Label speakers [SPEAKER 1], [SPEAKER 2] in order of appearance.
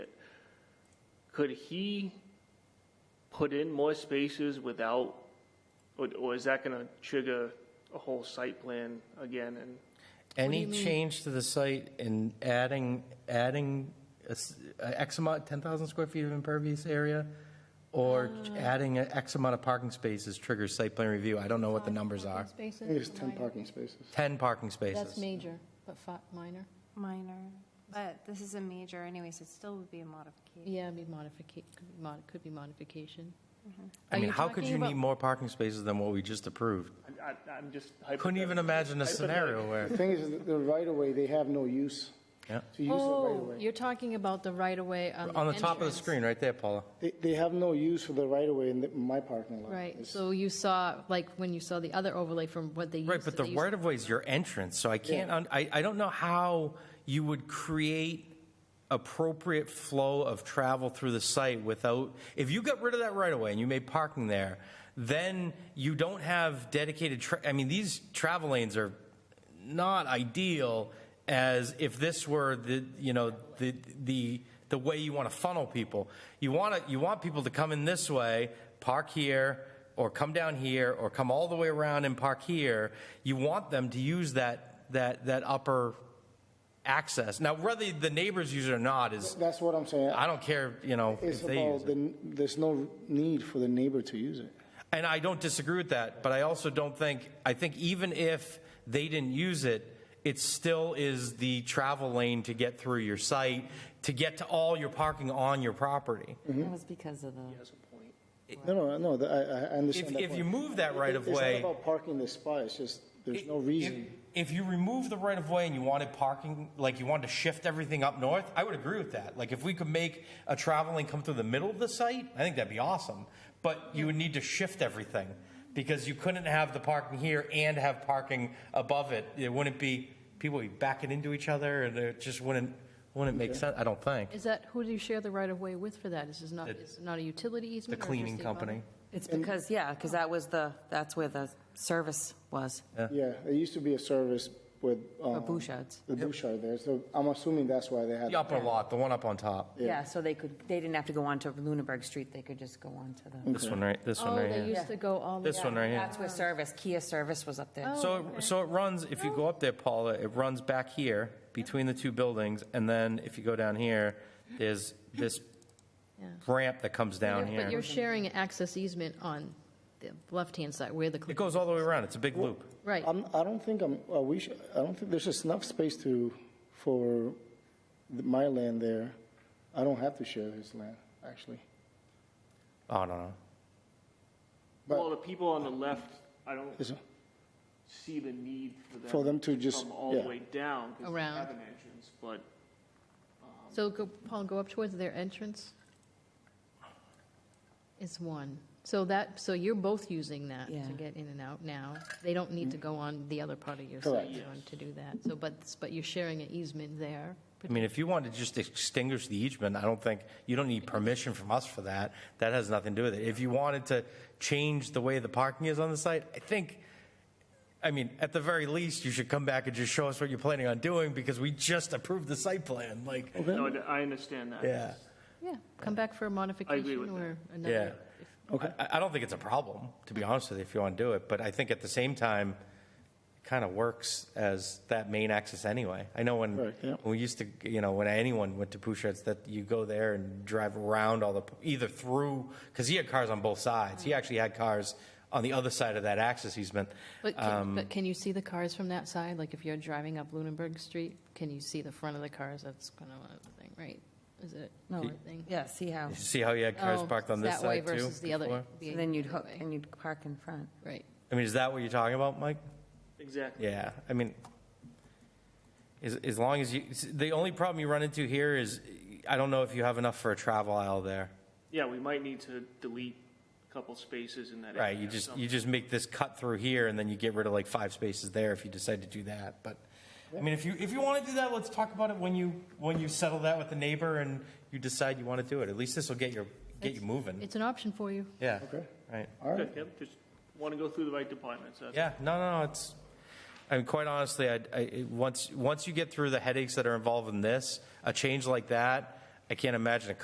[SPEAKER 1] could he put in more spaces without, or, or is that gonna trigger a whole site plan again and?
[SPEAKER 2] Any change to the site and adding, adding a s- a X amount, 10,000 square feet of impervious area? Or
[SPEAKER 3] Uh.
[SPEAKER 2] adding a X amount of parking spaces triggers site plan review? I don't know what the numbers are.
[SPEAKER 3] Spaces?
[SPEAKER 4] I think it's 10
[SPEAKER 3] Minor.
[SPEAKER 4] parking spaces.
[SPEAKER 2] 10 parking
[SPEAKER 3] That's
[SPEAKER 2] spaces.
[SPEAKER 3] major, but fi- minor?
[SPEAKER 5] Minor, but this is a major anyways, it still would be a modification.
[SPEAKER 3] Yeah, it'd be modification, could be modification.
[SPEAKER 2] I
[SPEAKER 3] Are
[SPEAKER 2] mean,
[SPEAKER 3] you
[SPEAKER 2] how could
[SPEAKER 3] talking
[SPEAKER 2] you
[SPEAKER 3] about-
[SPEAKER 2] need more parking spaces than what we just approved?
[SPEAKER 1] I, I- I'm just.
[SPEAKER 2] Couldn't even
[SPEAKER 1] hypothetical.
[SPEAKER 2] imagine a scenario where,
[SPEAKER 4] The thing is, that the right-of-way, they have no use.
[SPEAKER 2] yeah.
[SPEAKER 4] To use the
[SPEAKER 3] Oh,
[SPEAKER 4] right-of-way.
[SPEAKER 3] you're talking about the right-of-way on the
[SPEAKER 2] On the top of the
[SPEAKER 3] entrance.
[SPEAKER 2] screen, right there, Paula.
[SPEAKER 4] They, they have no use for the right-of-way in the- my parking lot.
[SPEAKER 3] Right,
[SPEAKER 4] It's-
[SPEAKER 3] so you saw, like, when you saw the other overlay from what they used to.
[SPEAKER 2] Right, but the
[SPEAKER 3] they used-
[SPEAKER 2] right of way is your entrance, so I can't, un- I, I don't know how you would create appropriate flow of travel through the site without, if you got rid of that right of way and you made parking there, then you don't have dedicated, tra- I mean, these travel lanes are not ideal as if this were the, you know, the, the, the way you want to funnel people. You want to, you want people to come in this way, park here, or come down here, or come all the way around and park here. You want them to use that, that, that upper access. Now, whether the neighbors use it or not is,
[SPEAKER 4] That's what I'm saying.
[SPEAKER 2] I don't care, you know,
[SPEAKER 4] It's
[SPEAKER 2] if they use
[SPEAKER 4] about,
[SPEAKER 2] it.
[SPEAKER 4] the- there's no need for the neighbor to use it.
[SPEAKER 2] And I don't disagree with that, but I also don't think, I think even if they didn't use it, it still is the travel lane to get through your site, to get to all your parking on your property.
[SPEAKER 6] That was because of the.
[SPEAKER 4] No, no, no, the- I, I
[SPEAKER 2] If,
[SPEAKER 4] understand that
[SPEAKER 2] if you
[SPEAKER 4] point.
[SPEAKER 2] move that right of
[SPEAKER 4] It's
[SPEAKER 2] way.
[SPEAKER 4] not about parking the spot, it's just, there's no
[SPEAKER 2] if-
[SPEAKER 4] reason.
[SPEAKER 2] If you remove the right of way and you wanted parking, like you wanted to shift everything up north, I would agree with that. Like if we could make a travel lane come through the middle of the site, I think that'd be awesome. But you would need to shift everything because you couldn't have the parking here and have parking above it. It wouldn't be, people would be backing into each other and it just wouldn't, wouldn't make sense, I don't think.
[SPEAKER 3] Is that, who do you share the right-of-way with for that? Is this not,
[SPEAKER 2] It-
[SPEAKER 3] is it not a utility
[SPEAKER 2] The
[SPEAKER 3] easement? or just
[SPEAKER 2] cleaning company.
[SPEAKER 3] abutment?
[SPEAKER 6] It's because, yeah, because that was the, that's where the service was,
[SPEAKER 4] Yeah, there used to be a service with.
[SPEAKER 6] the
[SPEAKER 4] um,
[SPEAKER 6] Bouchards.
[SPEAKER 4] The Bouchard there, so I'm assuming that's why they had.
[SPEAKER 2] The upper lot, the one up on top.
[SPEAKER 6] Yeah, so they could, they didn't have to go on to Lunenburg Street, they could just go on to the.
[SPEAKER 2] This one right, this one
[SPEAKER 3] Oh,
[SPEAKER 2] right
[SPEAKER 3] they
[SPEAKER 2] here.
[SPEAKER 3] used to go all the way.
[SPEAKER 2] This one right here.
[SPEAKER 6] That's where service, Kia service was up there.
[SPEAKER 3] Oh,
[SPEAKER 2] So, it- so it runs, if you go up there, Paula, it runs back here between the two buildings, and then if you go down here, there's this ramp that comes down
[SPEAKER 3] But you're
[SPEAKER 2] here.
[SPEAKER 3] sharing an access easement on the left-hand side where the,
[SPEAKER 2] It goes all the way around, it's a big loop.
[SPEAKER 3] right.
[SPEAKER 4] I'm, I don't think I'm, uh, we should, I don't think there's just enough space to, for the- my land there. I don't have to share his land, actually.
[SPEAKER 2] Oh, no, no.
[SPEAKER 4] But-
[SPEAKER 1] Well, the people on the left, I don't
[SPEAKER 4] Is it-
[SPEAKER 1] see the need for them.
[SPEAKER 4] For them to just-
[SPEAKER 1] Come all the
[SPEAKER 4] yeah.
[SPEAKER 1] way down. 'cause they
[SPEAKER 3] Around.
[SPEAKER 1] Have an entrance, but
[SPEAKER 3] So go, Paul, go up towards their entrance. It's one. So that, so you're both using that
[SPEAKER 6] Yeah.
[SPEAKER 3] to get in and out now. They don't need to go on the other part of your
[SPEAKER 4] Correct.
[SPEAKER 3] site to- to do that. So, but, but you're sharing an easement there.
[SPEAKER 2] I mean, if you want to just extinguish the easement, I don't think, you don't need permission from us for that. That has nothing to do with it. If you wanted to change the way the parking is on the site, I think, I mean, at the very least, you should come back and just show us what you're planning on doing, because we just approved the site plan, like,
[SPEAKER 1] no, I understand that.
[SPEAKER 2] yeah.
[SPEAKER 3] Yeah, come back for a modification
[SPEAKER 1] with
[SPEAKER 3] or
[SPEAKER 2] Yeah.
[SPEAKER 3] another.
[SPEAKER 2] I, I don't think it's a problem, to be honest with you, if you want to do it, but I think at the same time, it kind of works as that main axis anyway. I know when,
[SPEAKER 4] Right, yeah.
[SPEAKER 2] when we used to, you know, when anyone went to Pouchard's, that you go there and drive around all the, either through, because he had cars on both sides. He actually had cars on the other side of that axis easement.
[SPEAKER 3] But
[SPEAKER 2] Um,
[SPEAKER 3] can, but can you see the cars from that side? Like if you're driving up Lunenburg Street, can you see the front of the cars? That's kind of a thing, right? Is it?
[SPEAKER 6] No,
[SPEAKER 3] a thing?
[SPEAKER 6] Yeah, see how,
[SPEAKER 2] You See how he had cars
[SPEAKER 3] Oh,
[SPEAKER 2] parked on this
[SPEAKER 3] that way
[SPEAKER 2] side too?
[SPEAKER 3] Versus the other.
[SPEAKER 2] before?
[SPEAKER 3] the
[SPEAKER 6] so then you'd
[SPEAKER 3] other
[SPEAKER 6] hook,
[SPEAKER 3] way.
[SPEAKER 6] and you'd park in front.
[SPEAKER 3] Right.
[SPEAKER 2] I mean, is that what you're talking about, Mike?
[SPEAKER 1] Exactly.
[SPEAKER 2] Yeah, I mean, as, as long as you, the only problem you run into here is, I don't know if you have enough for a travel aisle there.
[SPEAKER 1] Yeah, we might need to delete a couple spaces in that.
[SPEAKER 2] Right,
[SPEAKER 1] area
[SPEAKER 2] you
[SPEAKER 1] or
[SPEAKER 2] just,
[SPEAKER 1] something.
[SPEAKER 2] you just make this cut through here, and then you get rid of like five spaces there if you decide to do that, but, I mean, if you, if you want to do that, let's talk about it when you, when you settle that with the neighbor and you decide you want to do it. At least this will get your, get you moving,
[SPEAKER 3] It's an option for you.
[SPEAKER 2] yeah.
[SPEAKER 4] Okay.
[SPEAKER 2] Right.
[SPEAKER 4] All right.
[SPEAKER 1] Good, yep, just want to go through the right departments. that's-
[SPEAKER 2] Yeah, no, no, no, it's, I mean, quite honestly, I, I, it- once, once you get through the headaches that are involved in this, a change like that, I can't imagine a